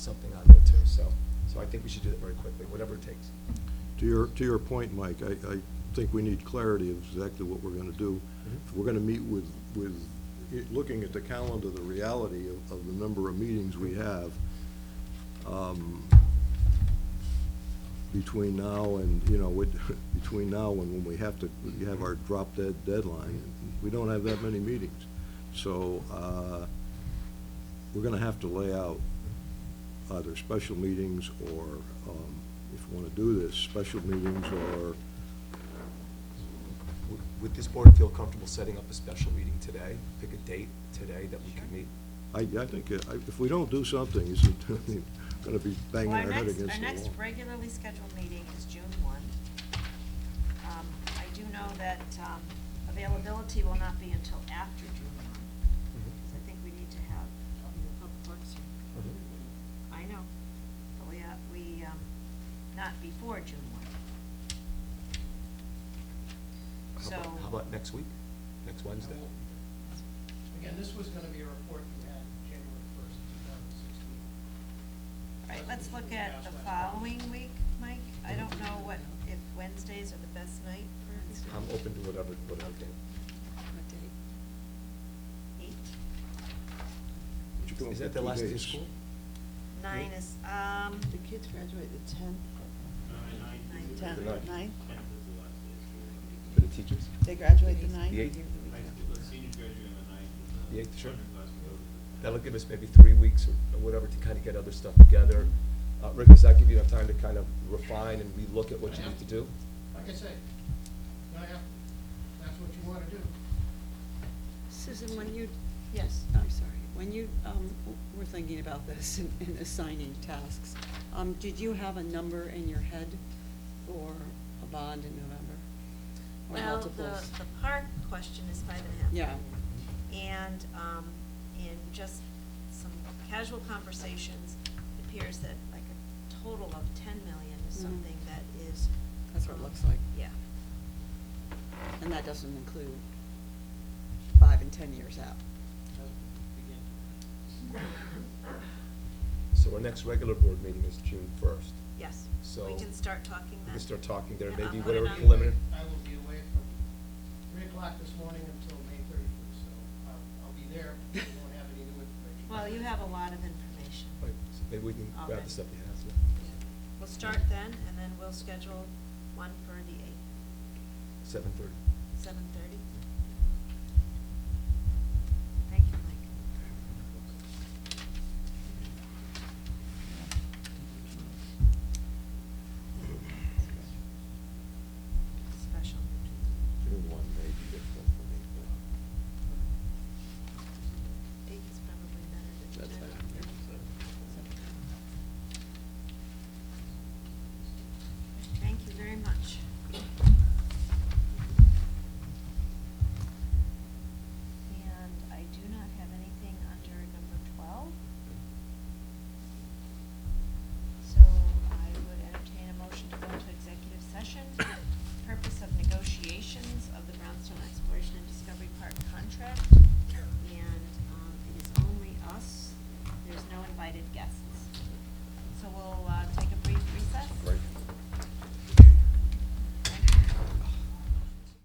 something on there too, so, so I think we should do that very quickly, whatever it takes. To your, to your point, Mike, I, I think we need clarity of exactly what we're gonna do. If we're gonna meet with, with, it- looking at the calendar, the reality of, of the number of meetings we have, um, between now and, you know, with, between now and when we have to, we have our drop dead deadline, we don't have that many meetings. So, uh, we're gonna have to lay out either special meetings or, um, if you wanna do this, special meetings or, Would- Would this board feel comfortable setting up a special meeting today? Pick a date today that we can meet? I, I think, uh, I- if we don't do something, it's gonna be banging Well, our head against the Our next, our next wall. regularly scheduled meeting is June one. Um, I do know that, um, availability will not be until after June one, because I think we need to have, public works. I know, but we, uh, we, um, not before June one. How So, about- How about next week, next Wednesday? Again, this was gonna be a report you had January first, two thousand sixteen. all right, let's look at the following week, Mike. I don't know what, if Wednesdays are the best night for I'm open to whatever, whatever day. eight. But you go Is for that the two last day of days. school? Nine is, um, The kids graduate the tenth, nine, ten. The ninth. tenth, ninth, For the teachers? they graduate the ninth. eighth? Seniors graduate on the ninth. and The eighth, sure. underclassmen go to the- That'll give us maybe three weeks or whatever to kind of get other stuff together. Uh, Rick, does that give you enough time to kind of refine and relook at what you need to do? Like I say, now, yeah, that's what you wanna do. Susan, when you, Yes. I'm sorry, when you um, w- were thinking about this and- and assigning tasks, um, did you have a number in your head for a bond in November? Or Well, the, multiples? the park question is five and a half. Yeah. And, um, in just some casual conversations, it appears that like a total of ten million is Mhm. something that is. That's what it um, looks like. Yeah. And that doesn't include five and ten years out. So our next regular board meeting is June first. Yes. So- We can start talking We then. can start talking there, Yeah, maybe I'll put it whatever on. preliminary. I will be away from three o'clock this morning until May thirty-first, so I'll, I'll be there, but I won't have any new information. Well, you have a lot of information. Right, so Maybe we can grab Okay. the stuff you have. so. Yeah. We'll start then, and then we'll schedule one for the eighth, Seven thirty. seven thirty. um, uh,